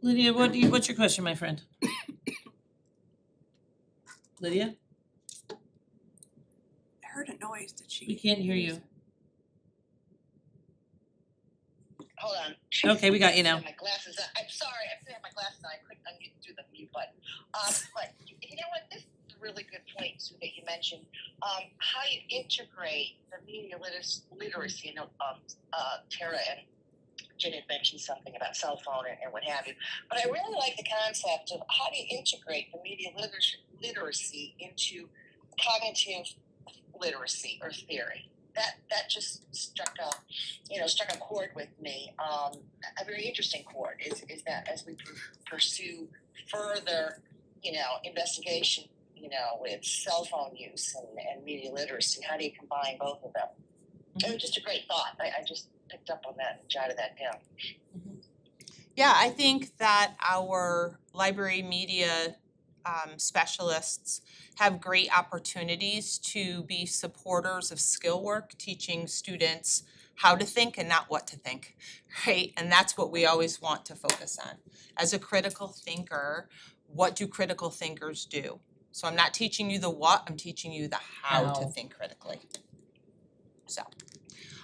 Lydia, what do you, what's your question, my friend? Lydia, I heard a noise, did we she? can't hear you. Hold on. Okay, we got you now. My glasses. on. I'm sorry. I still have my glasses on. I couldn't unmute through the mute button. Um, but you know what? This is a really good point Sue, that you mentioned. Um, how you integrate the media literacy. literacy you know, um, uh, Tara and Jen had mentioned something about cell phone and, and what have you. But I really like the concept of how do you integrate the media literacy, literacy into cognitive literacy or theory. That that just struck a you know struck a chord with me. Um, a very interesting chord is is that as we pr- pursue further you know investigation you know with cell phone use and, and media literacy, how do you combine both of them? It was just a great thought. I, I just picked up on that and jotted that down. Yeah, I think that our library media um specialists have great opportunities to be supporters of skill work, teaching students how to think and not what to think, right? And that's what we always want to focus on. As a critical thinker, what do critical thinkers do? So I'm not teaching you the what, I'm teaching you the how to How. think critically. So.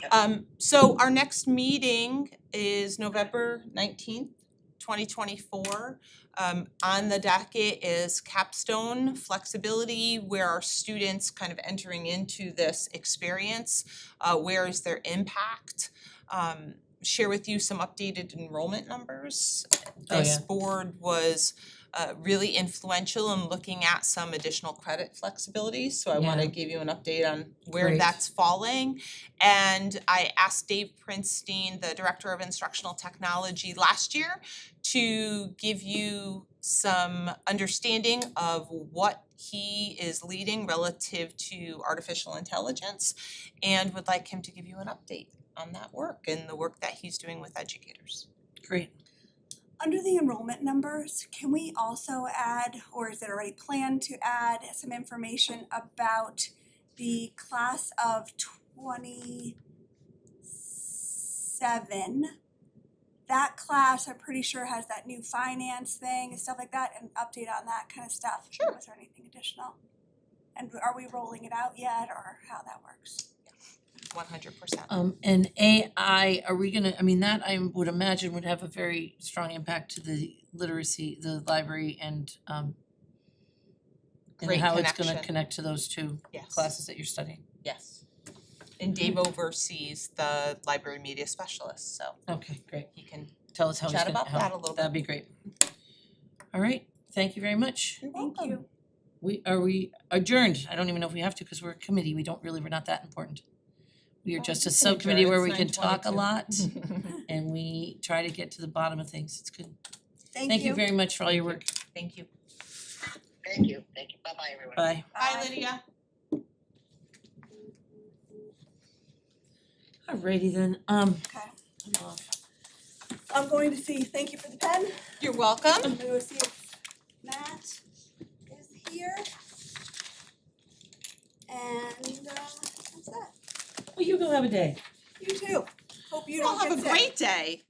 Yep. Um so our next meeting is November nineteenth, twenty twenty four. Um on the docket is capstone flexibility, where are students kind of entering into this experience? Uh where is their impact? Um share with you some updated enrollment numbers. Oh, This yeah. board was uh really influential in looking at some additional credit flexibility, so I wanna give you an update on where Great. that's falling. And I asked Dave Prinstein, the Director of Instructional Technology last year, to give you some understanding of what he is leading relative to artificial intelligence and would like him to give you an update on that work and the work that he's doing with educators. Great. Under the enrollment numbers, can we also add, or is it already planned to add some information about the class of twenty seven? That class, I'm pretty sure has that new finance thing and stuff like that, and update on that kind of stuff. Sure. Was there anything additional? And are we rolling it out yet, or how that works? One hundred percent. Um and AI, are we gonna, I mean, that I would imagine would have a very strong impact to the literacy, the library and um and Great how it's gonna connection. connect to those two Yes. classes that you're studying. Yes. And Dave oversees the library media specialist, so Okay, great. he can. Tell us how it's Chat Oh, gonna help. about that a little That'd be great. All right, thank you very much. Thank you. We, are we adjourned? I don't even know if we have to, cause we're a committee, we don't really, we're not that important. We are Oh, just you a can adjourn, subcommittee where it's we can talk a 9:22. lot and we try to get to the bottom of things, it's good. Thank you very much for all your work, Thank you. Thank you. Thank you. Bye bye, everyone. bye. Bye, Bye. Lydia. Alrighty then, um. Okay. I'm off. I'm going to see, thank you for the pen. You're welcome. I'm gonna go see if Matt is here. And uh, that's that. Well, you go have a day. You too. Hope you You all don't have get a sick. great day.